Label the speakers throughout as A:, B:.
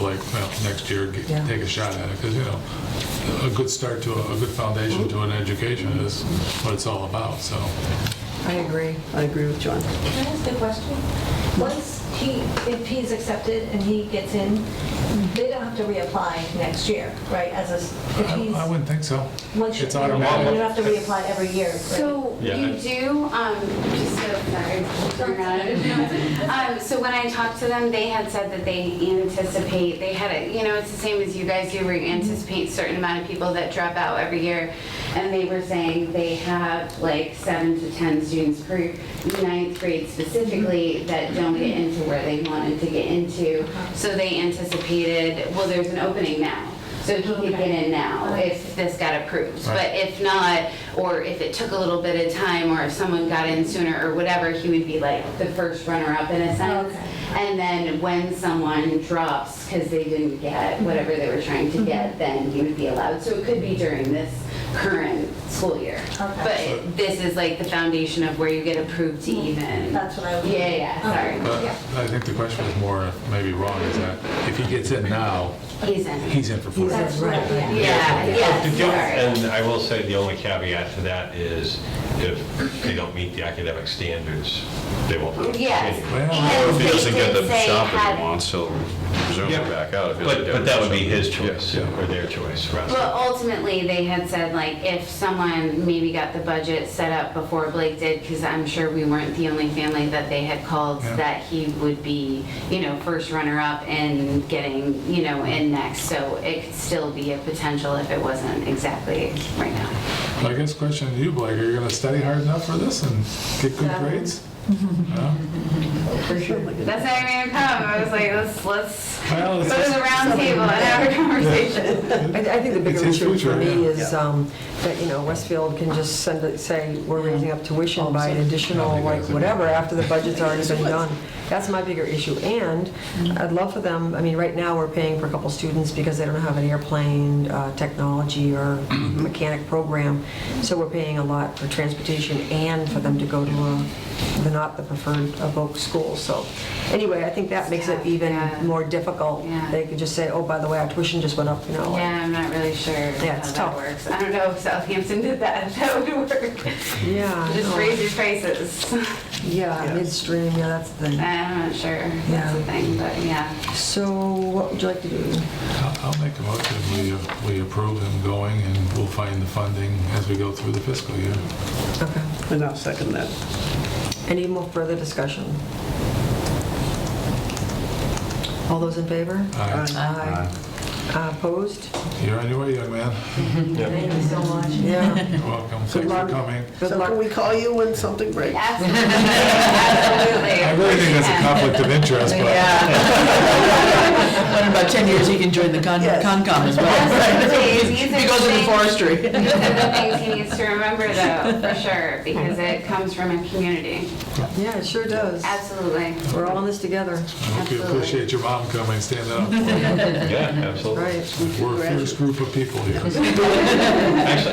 A: like, well, next year, get-
B: Yeah.
A: take a shot at it, because, you know, a good start to, a a good foundation to an education is what it's all about, so.
B: I agree. I agree with John.
C: Can I ask a question? Once he, if he's accepted and he gets in, they don't have to reapply next year, right? As a, s- if
A: I
C: he's,
A: I wouldn't think so.
C: once you,
A: It's
C: you don't have to
A: automatic.
C: reapply every year, right?
D: So
E: Yeah,
D: you
E: I-
D: do, um, just so, sorry, turn around. Um, so when I talked to them, they had said that they anticipate, they had it, you know, it's the same as you guys do, where you anticipate certain amount of people that drop out every year. And they were saying they have like seven to 10 students per ninth grade specifically that don't get into where they wanted to get into. So they anticipated, well, there's an opening now, so he could get in
C: Oh,
D: now if this got approved. But
A: Right.
D: if not, or if it took a little bit of time, or if someone got in sooner or whatever, he would be like the first runner-up in a sense.
C: Okay.
D: And then when someone drops because they didn't get whatever they were trying to
C: Mm-hmm.
D: get, then he would be allowed. So it could be during this current school year.
C: Okay.
D: But this is like the foundation of where you get approved to even.
C: Mm-hmm. That's what I was.
D: Yeah, yeah, sorry.
A: But I think the question is more, maybe wrong, is that if he gets in now,
D: He's in.
A: he's in for four
B: He's in.
A: years.
C: That's right, yeah.
D: Yeah,
E: The only-
D: yeah,
E: And I will say, the only caveat to that is if they don't meet the academic standards, they won't
D: sorry.
E: continue.
D: Yes.
A: Well,
F: Or
D: And
F: if he
D: they
F: doesn't get
D: did
F: the
D: say
F: shop that
D: had-
F: he wants, he'll presumably
E: Yeah.
F: back out. if he doesn't
E: But,
F: get
E: but that would be
F: something.
E: his choice,
F: Yeah.
E: or their choice, rather.
D: But ultimately, they had said, like, if someone maybe got the budget set up before Blake did, because I'm sure we weren't the only family that they had called,
A: Yeah.
D: that he would be, you know, first runner-up and getting, you know, in next. So it could still be a potential if it wasn't exactly right now.
A: I guess question to you, Blake, are you gonna study hard enough for this and get good
D: Yeah.
A: grades? No?
D: That's how I made him come. I was like, let's, let's,
A: Well, it's
D: go to the round table and have a conversation.
B: I I think the
A: It's
B: bigger
A: his
B: issue
A: future,
B: for me
A: yeah.
B: is um, that, you know, Westfield can just send, it- say, we're raising up tuition by an additional, like, whatever, after the budget's already been done. That's my bigger issue. And
D: Mm-hmm.
B: I'd love for them, I mean, right now, we're paying for a couple students because they don't have an airplane uh, technology or
A: Mm-hmm.
B: mechanic program. So we're paying a lot for transportation and for them to go to a, they're not the preferred Evoque school. So anyway, I think that makes it even
D: Yeah.
B: more difficult.
D: Yeah.
B: They could just say, oh, by the way, our tuition just went up, you know. like-
D: Yeah, I'm not really sure how
B: it's
D: that
B: tough.
D: works. I don't know if Southampton did that, if that would work.
B: Yeah. I
D: Just
B: know.
D: raise your prices.
B: Yeah, midstream, yeah, that's the thing.
D: I'm not sure. That's the thing, but yeah.
B: So what would you like to do?
A: I'll I'll make a motion, we, uh, we approve him going, and we'll find the funding as we go through the fiscal year.
B: Okay.
G: And I'll second that.
B: Any more further discussion? All those in favor?
A: Aye.
B: Aye. Uh, Opposed?
A: You're on your way, young man.
B: Thank you so much. Yeah.
A: You're welcome, thanks for
B: luck.
A: coming.
B: Good
G: So can we
B: luck.
G: call you when something breaks?
D: Absolutely. Absolutely.
A: I really think that's a conflict of interest, but
H: But in about 10 years, he can join the con-
G: Yes.
H: Concom as well.
D: Please, these
H: He goes into
D: are the things-
H: forestry.
D: these are the things he needs to remember though, for sure, because it comes from a community.
B: Yeah, it sure does.
D: Absolutely.
B: We're all in this together.
A: I hope you
D: Absolutely.
A: appreciate your mom coming, and standing up.
E: Yeah, absolutely.
B: Right.
A: We're a fierce group of people here.
E: Actually,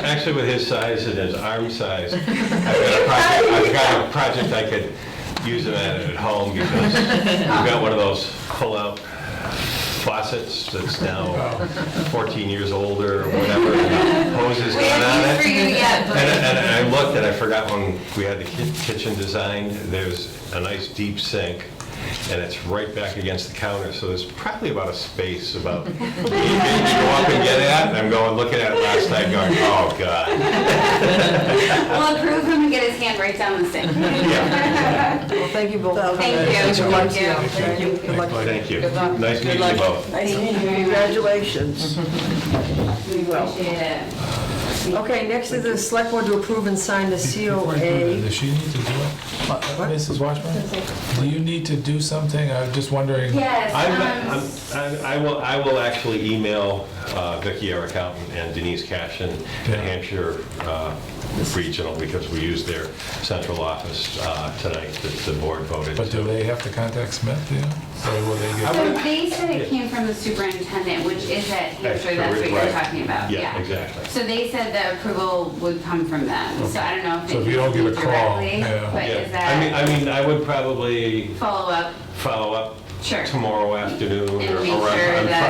E: actually, with his size and his arm size, I've got a project, I've got a project I could use him at at home, because we've got one of those pull-out faucets that's now 14 years older, or whatever, and hoses
D: We
E: going on
D: have E
E: it.
D: news for you yet,
E: And
D: but
E: I- And I looked and I forgot when we had the ki- kitchen designed, there's a nice deep sink and it's right back against the counter, so there's probably about a space about, you go up and get at, and I'm going, looking at it last night going, oh, God.
D: we'll approve him and get his hand right down the sink.
B: Well, thank you both.
D: Thank you,
B: Good luck to
D: thank you.
B: Thank you. Good luck.
E: Thank you.
H: Good luck.
E: Nice
H: Good
E: meeting you
H: luck.
E: both.
G: Nice to meet you. Congratulations.
D: We appreciate it.
B: Okay, next is the select board to approve and sign the
A: Before I do that,
B: COA.
A: Does she need to do it? Uh, Mrs. Washburn, do you need to do something? I'm just wondering.
D: Yes.
E: I'm,
D: um,
E: I'm- I'm- I will, I will actually email uh, Vicki, our accountant, and Denise Cashin, the
A: Yeah.
E: Hampshire uh, Regional, because we used their central office uh, tonight that the board voted.
A: But do
E: to.
A: they have to contact Smith, do you? Or will they get?
D: So they said it came from the superintendent, which is at Hampshire, that's what you're
E: Right.
D: talking about, yeah.
E: Yeah, exactly.
D: So they said the approval would come from them, so I don't know if.
A: So
D: it
A: if you don't get a
D: came
A: call,
D: directly,
A: yeah.
D: But
E: Yeah.
D: is
E: I mean,
D: that
E: I mean, I would probably
D: follow-up?
E: follow up
D: Sure.
E: tomorrow afternoon or
D: And make
E: around
D: sure
E: on
D: that-